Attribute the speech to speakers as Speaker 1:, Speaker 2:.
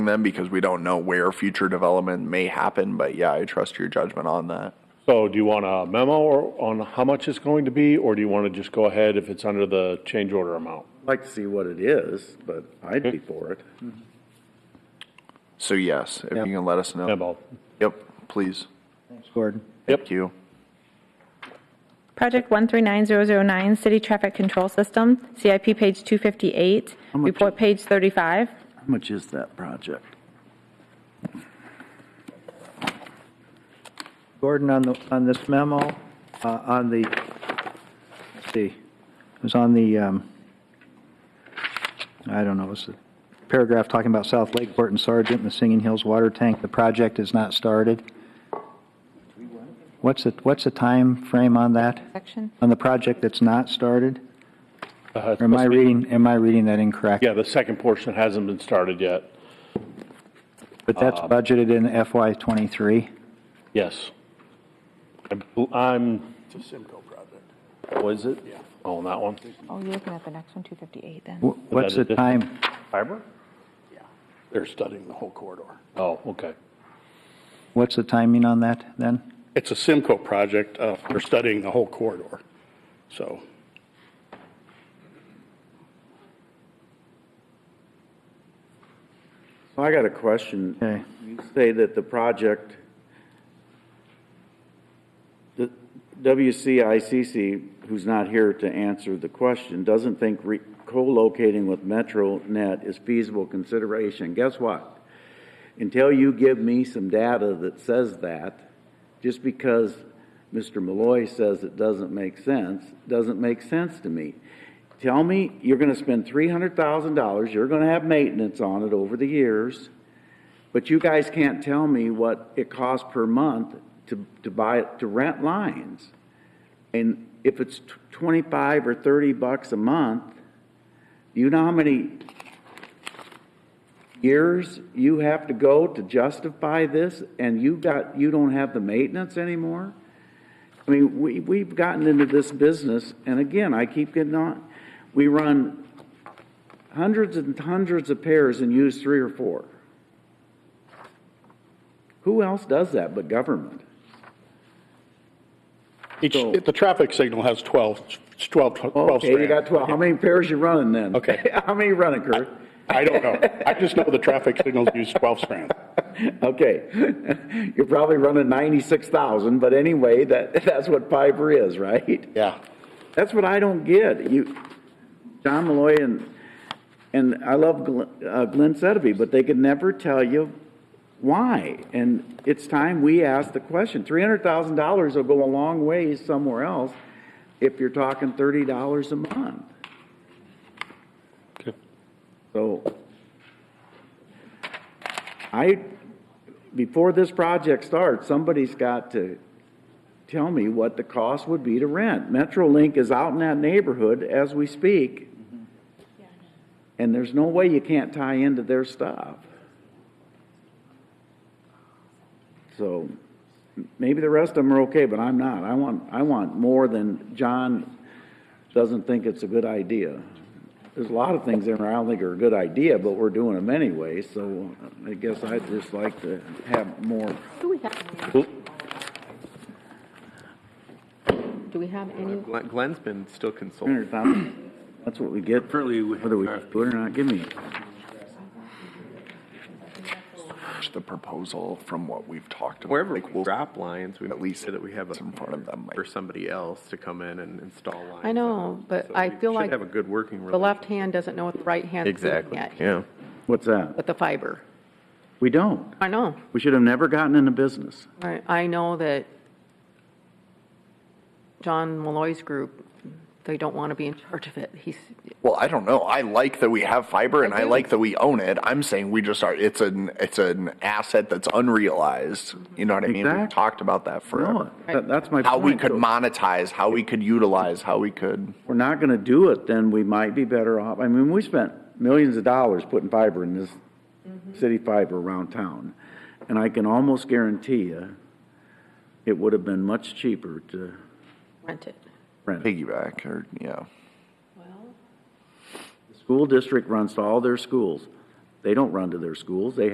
Speaker 1: them because we don't know where future development may happen, but yeah, I trust your judgment on that.
Speaker 2: So do you want a memo or- on how much it's going to be, or do you want to just go ahead if it's under the change order amount?
Speaker 3: I'd like to see what it is, but I'd be for it.
Speaker 1: So yes, if you can let us know.
Speaker 2: Memo.
Speaker 1: Yep, please.
Speaker 4: Thanks, Gordon.
Speaker 1: Thank you.
Speaker 5: Project 139009, City Traffic Control System, CIP page 258,
Speaker 4: much-
Speaker 5: report page 35.
Speaker 4: How much is that project? Gordon, on the, on this memo, uh, on the, let's see, it was on the, um, I don't know, it was the paragraph talking about South Lakeport and Sargent and the Singing Hills Water Tank. The project is not started. What's the, what's the time frame on that?
Speaker 5: Section.
Speaker 4: On the project that's not started?
Speaker 2: Uh, it's
Speaker 4: Or am I
Speaker 2: supposed to be-
Speaker 4: reading, am I reading that incorrect?
Speaker 2: Yeah, the second portion hasn't been started yet.
Speaker 4: But that's
Speaker 2: uh,
Speaker 4: budgeted in FY '23.
Speaker 2: Yes. I'm- I'm. It's a Simco project. Was it? Yeah. Oh, on that one?
Speaker 5: Oh, you're looking at the next one, 258 then.
Speaker 4: What's the
Speaker 2: that a
Speaker 4: time?
Speaker 2: Fiber?
Speaker 6: They're studying the whole corridor.
Speaker 2: Oh, okay.
Speaker 4: What's the timing on that then?
Speaker 6: It's a Simco project. uh, They're studying the whole corridor. So
Speaker 3: So I got a question.
Speaker 4: Okay.
Speaker 3: You say that the project, the WCICC, who's not here to answer the question, doesn't think re- co-locating with MetroNet is feasible consideration. Guess what? Until you give me some data that says that, just because Mr. Malloy says it doesn't make sense, doesn't make sense to me. Tell me, you're gonna spend three hundred thousand dollars, you're gonna have maintenance on it over the years, but you guys can't tell me what it costs per month to, to buy, to rent lines. And if it's tw- twenty-five or thirty bucks a month, you know how many years you have to go to justify this, and you got, you don't have the maintenance anymore? I mean, we, we've gotten into this business, and again, I keep getting on, we run hundreds and hundreds of pairs and use three or four. Who else does that but government?
Speaker 6: each, the traffic signal has 12, it's 12, 12
Speaker 3: Okay, you got
Speaker 6: strands.
Speaker 3: twelve, how many pairs you running then?
Speaker 6: Okay.
Speaker 3: How many you running, Kurt?
Speaker 6: I don't know. I just know the traffic signals use 12 strands.
Speaker 3: Okay, you're probably running ninety-six thousand, but anyway, that, that's what fiber is, right?
Speaker 6: Yeah.
Speaker 3: That's what I don't get. You, John Malloy and, and I love Glenn, uh, Glenn Sedeby, but they could never tell you why. And it's time we ask the question. Three hundred thousand dollars will go a long ways somewhere else if you're talking thirty dollars a month. So I, before this project starts, somebody's got to tell me what the cost would be to rent. MetroLink is out in that neighborhood as we speak. And there's no way you can't tie into their stuff. So m- maybe the rest of them are okay, but I'm not. I want, I want more than John doesn't think it's a good idea. There's a lot of things in there I don't think are a good idea, but we're doing them anyway, so uh, I guess I'd just like to have more.
Speaker 7: Do we have any?
Speaker 8: Glenn- Glenn's been still consulting.
Speaker 3: Hundred thousand, that's what we get,
Speaker 9: Currently, we have
Speaker 3: whether we do
Speaker 9: RFP.
Speaker 3: it or not, give me.
Speaker 1: Just the proposal from what we've talked about.
Speaker 8: Wherever we
Speaker 1: like, we'll-
Speaker 8: drop lines, we at least that we have
Speaker 1: in front of them, like-
Speaker 8: for somebody else to come in and install lines.
Speaker 7: I know, but
Speaker 8: So
Speaker 7: I
Speaker 8: we
Speaker 7: feel
Speaker 8: should
Speaker 7: like
Speaker 8: have a good working
Speaker 7: The
Speaker 8: relationship.
Speaker 7: left hand doesn't know what the right hand is looking
Speaker 8: Exactly,
Speaker 7: at.
Speaker 8: yeah.
Speaker 3: What's that?
Speaker 7: With the fiber.
Speaker 3: We don't.
Speaker 7: I know.
Speaker 3: We should have never gotten into business.
Speaker 7: I, I know that John Malloy's group, they don't want to be in charge of it. He's,
Speaker 1: Well, I don't know. I like that we have fiber and I
Speaker 7: do.
Speaker 1: like that we own it. I'm saying we just are, it's an, it's an asset that's unrealized. You know what I mean? We've
Speaker 3: Exactly.
Speaker 1: talked about that
Speaker 3: No,
Speaker 1: forever.
Speaker 3: that- that's my point.
Speaker 1: How we could
Speaker 3: So
Speaker 1: monetize, how we could utilize, how we could,
Speaker 3: If we're not gonna do it, then we might be better off. I mean, we spent millions of dollars putting fiber in this city fiber around town. And I can almost guarantee you, it would have been much cheaper to
Speaker 7: rent it.
Speaker 3: rent. it.
Speaker 1: piggyback or, yeah.
Speaker 3: The School district runs to all their schools. They don't run to their schools. They